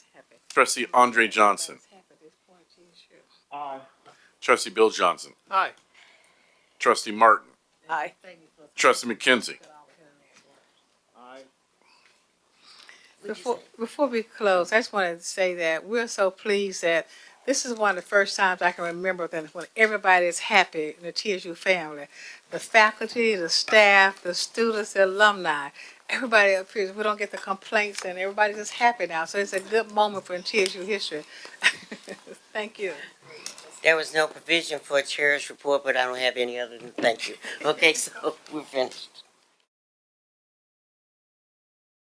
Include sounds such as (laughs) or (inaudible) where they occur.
Trustee Andre Johnson. Aye. Trustee Bill Johnson. Aye. Trustee Martin. Aye. Trustee McKenzie. Aye. Before, before we close, I just wanted to say that we're so pleased that this is one of the first times I can remember that when everybody is happy in the TSU family. The faculty, the staff, the students, the alumni, everybody up here, we don't get the complaints and everybody's just happy now. So it's a good moment for TSU history. (laughs) Thank you. There was no provision for a chair's report, but I don't have any other than thank you. Okay, (laughs) so we're finished.